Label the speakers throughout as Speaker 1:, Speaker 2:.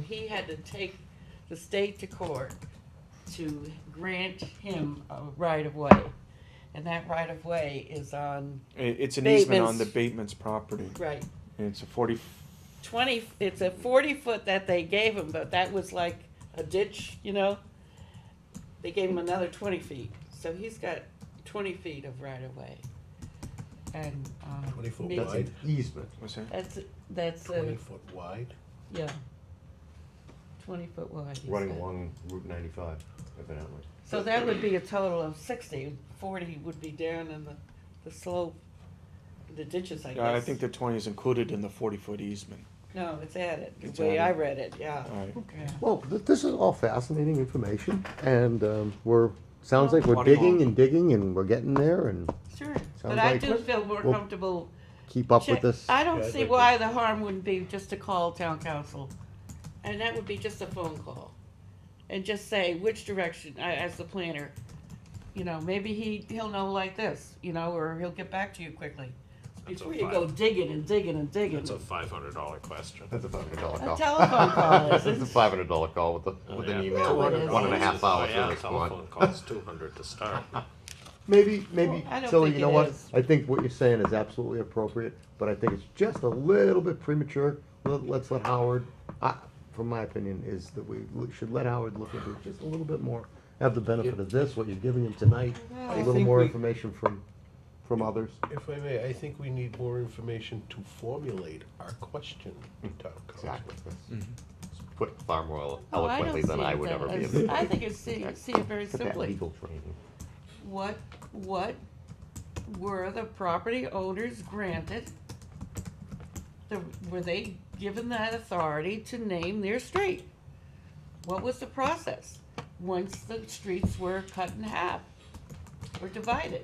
Speaker 1: he had to take the state to court to grant him a right of way. And that right of way is on,
Speaker 2: It, it's an easement on the
Speaker 1: Bateman's.
Speaker 2: Bateman's property.
Speaker 1: right,
Speaker 2: And it's a forty,
Speaker 1: twenty, it's a forty foot that they gave him, but that was like a ditch, you know? They gave him another twenty feet, so he's got twenty feet of right of way. And, um.
Speaker 3: 20 foot
Speaker 1: maybe-
Speaker 4: That's an easement.
Speaker 2: what's that?
Speaker 1: That's, that's, uh,
Speaker 3: Twenty foot wide?
Speaker 1: yeah. Twenty foot wide. he's
Speaker 4: Running
Speaker 1: got.
Speaker 4: along Route ninety-five, evidently.
Speaker 1: So that would be a total of 60. 40 would be down in the, the slope, the ditches, I guess.
Speaker 2: Yeah, I think the twenty is included in the forty foot easement.
Speaker 1: No, it's added,
Speaker 2: It's
Speaker 1: the way I
Speaker 2: added.
Speaker 1: read it, yeah.
Speaker 2: All right.
Speaker 1: Yeah.
Speaker 5: Well, th- this is all fascinating information, and um, we're, sounds like we're
Speaker 2: Body
Speaker 5: digging
Speaker 2: long.
Speaker 5: and digging, and we're getting there, and
Speaker 1: Sure, but
Speaker 5: Sounds
Speaker 1: I
Speaker 5: like
Speaker 1: do
Speaker 5: what-
Speaker 1: feel more
Speaker 5: well,
Speaker 1: comfortable.
Speaker 5: keep up
Speaker 1: check-
Speaker 5: with this.
Speaker 1: I
Speaker 3: Yeah,
Speaker 1: don't
Speaker 3: I'd
Speaker 1: see
Speaker 3: like to-
Speaker 1: why the harm wouldn't be just to call town council. And that would be just a phone call. And just say which direction, I, as the planner, you know, maybe he, he'll know like this, you know, or he'll get back to you quickly.
Speaker 6: That's a
Speaker 1: Before you go digging and digging and digging.
Speaker 6: That's a five hundred dollar question.
Speaker 4: That's a five hundred dollar
Speaker 1: A
Speaker 4: call.
Speaker 1: telephone call, Oh,
Speaker 4: That's
Speaker 1: isn't
Speaker 4: a
Speaker 1: it?
Speaker 4: five hundred dollar call with a, with an email, one one and a
Speaker 1: Oh,
Speaker 4: half hours
Speaker 6: Oh, Yeah,
Speaker 4: in response.
Speaker 6: telephone calls two hundred to start.
Speaker 5: Maybe, maybe,
Speaker 1: Well, I don't
Speaker 5: Tilly,
Speaker 1: think
Speaker 5: you know
Speaker 1: it
Speaker 5: what?
Speaker 1: is.
Speaker 5: I think what you're saying is absolutely appropriate, but I think it's just a little bit premature. Let- Let's let Howard, I- from my opinion, is that we l- should let Howard look into it just a little bit more. Have the benefit of this, what you're giving him tonight,
Speaker 1: Well,
Speaker 5: a
Speaker 1: I
Speaker 5: little
Speaker 3: think
Speaker 5: more
Speaker 3: we-
Speaker 5: information from, from others.
Speaker 3: If I may, I think we need more information to formulate our question to town council.
Speaker 4: Exactly. Put far more
Speaker 1: Oh, I
Speaker 4: eloquently
Speaker 1: don't
Speaker 4: than
Speaker 1: see
Speaker 4: I
Speaker 1: it
Speaker 4: would
Speaker 1: that
Speaker 4: ever be
Speaker 1: way.
Speaker 4: able to.
Speaker 1: I think it's see, see it very
Speaker 4: Get that
Speaker 1: simply.
Speaker 4: legal training.
Speaker 1: What, what were the property owners granted? The, were they given that authority to name their street? What was the process once the streets were cut in half or divided?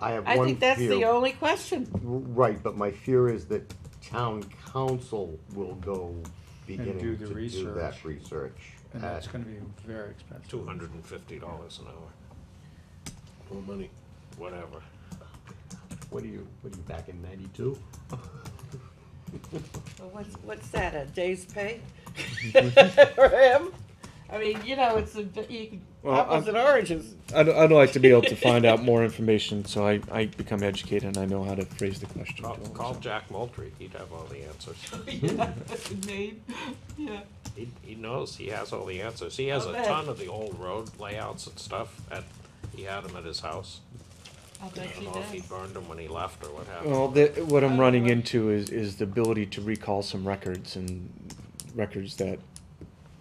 Speaker 5: I have
Speaker 1: I
Speaker 5: one
Speaker 1: think that's the
Speaker 5: fear.
Speaker 1: only question.
Speaker 5: Right, but my fear is that town council will go beginning
Speaker 7: do
Speaker 5: to
Speaker 7: the
Speaker 5: do that research.
Speaker 7: And
Speaker 5: Uh,
Speaker 7: that's gonna be very expensive.
Speaker 6: Two hundred and fifty dollars an hour,
Speaker 3: More money.
Speaker 6: whatever.
Speaker 5: What are you, what are you, back in ninety-two?
Speaker 1: Well, What's, what's that, a day's pay for him? I mean, you know, it's a, bit- you can-
Speaker 2: Well,
Speaker 1: apples
Speaker 2: I'm-
Speaker 1: and oranges.
Speaker 2: I'd, I'd like to be able to find out more information, so I, I become educated and I know how to phrase the question.
Speaker 6: Call,
Speaker 2: to him,
Speaker 6: call
Speaker 2: so.
Speaker 6: Jack Moultrie, he'd have all the answers.
Speaker 1: Yeah, that's the name, yeah.
Speaker 6: He, he knows, he has all the answers. He has a
Speaker 1: Okay.
Speaker 6: ton of the old road layouts and stuff at, he had them at his house.
Speaker 1: I'll
Speaker 6: I
Speaker 1: bet
Speaker 6: don't
Speaker 1: you
Speaker 6: know if he
Speaker 1: does.
Speaker 6: burned them when he left or what happened.
Speaker 2: Well, the, what I'm running into is, is the ability to recall some records and records that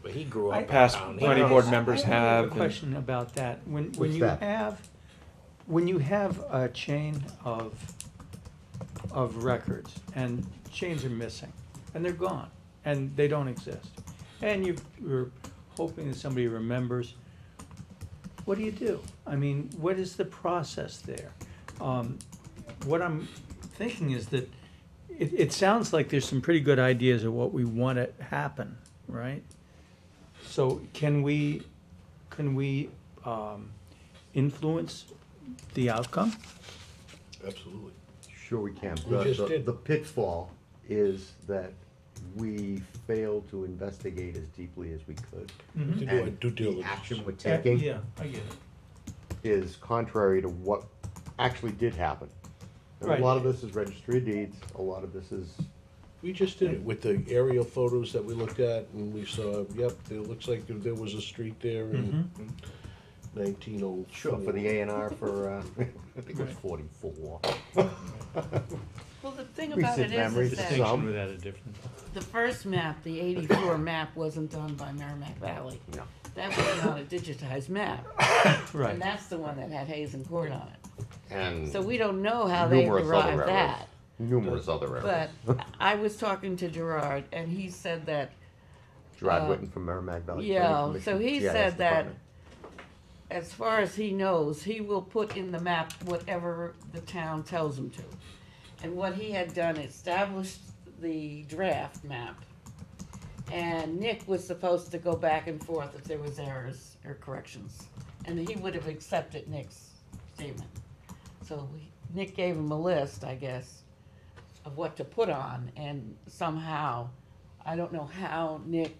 Speaker 6: But he grew up in
Speaker 2: past
Speaker 6: town. He
Speaker 2: planning
Speaker 6: knows-
Speaker 2: board members
Speaker 7: I have a
Speaker 2: have. and-
Speaker 7: question about that. When, when
Speaker 5: What's
Speaker 7: you
Speaker 5: that?
Speaker 7: have, when you have a chain of, of records and chains are missing and they're gone and they don't exist. And you, you're hoping that somebody remembers, what do you do? I mean, what is the process there? Um, what I'm thinking is that it, it sounds like there's some pretty good ideas of what we want to happen, right? So can we, can we um, influence the outcome?
Speaker 3: Absolutely.
Speaker 5: Sure we can.
Speaker 3: We
Speaker 5: The-
Speaker 3: just
Speaker 5: the-
Speaker 3: did.
Speaker 5: The pitfall is that we failed to investigate as deeply as we could.
Speaker 3: To do our
Speaker 5: And
Speaker 3: due
Speaker 5: the
Speaker 3: diligence.
Speaker 5: action we're taking
Speaker 7: Yeah, I get it.
Speaker 5: is contrary to what actually did happen. And A
Speaker 7: Right.
Speaker 5: lot of this is registry of deeds, a lot of this is,
Speaker 3: We just did it with the aerial photos that we looked at and we saw, yep, it looks like there- there was a street there in nineteen oh.
Speaker 5: Mm-hmm. sure, for the A and R for, uh, I think it was
Speaker 7: Right.
Speaker 5: forty-four.
Speaker 1: Well, the thing
Speaker 5: Recent
Speaker 1: about it is,
Speaker 5: memories.
Speaker 1: is that
Speaker 5: Some.
Speaker 7: without a difference.
Speaker 1: the first map, the eighty-four map, wasn't done by Merrimack Valley.
Speaker 5: No.
Speaker 1: That was not a digitized map,
Speaker 7: Right.
Speaker 1: and that's the one that had Hayes and Court on it.
Speaker 4: And
Speaker 1: So we don't know how they
Speaker 4: numerous other
Speaker 1: derived
Speaker 4: errors.
Speaker 1: that.
Speaker 4: Numerous other errors.
Speaker 1: But I was talking to Gerard, and he said that
Speaker 5: Gerard
Speaker 1: uh,
Speaker 5: Whitten from Merrimack Valley. Planning
Speaker 1: yeah,
Speaker 5: Commission,
Speaker 1: so he
Speaker 5: GIS
Speaker 1: said that-
Speaker 5: Department.
Speaker 1: as far as he knows, he will put in the map whatever the town tells him to. And what he had done, established the draft map. And Nick was supposed to go back and forth if there was errors or corrections. And he would have accepted Nick's statement. So we- Nick gave him a list, I guess, of what to put on, and somehow, I don't know how Nick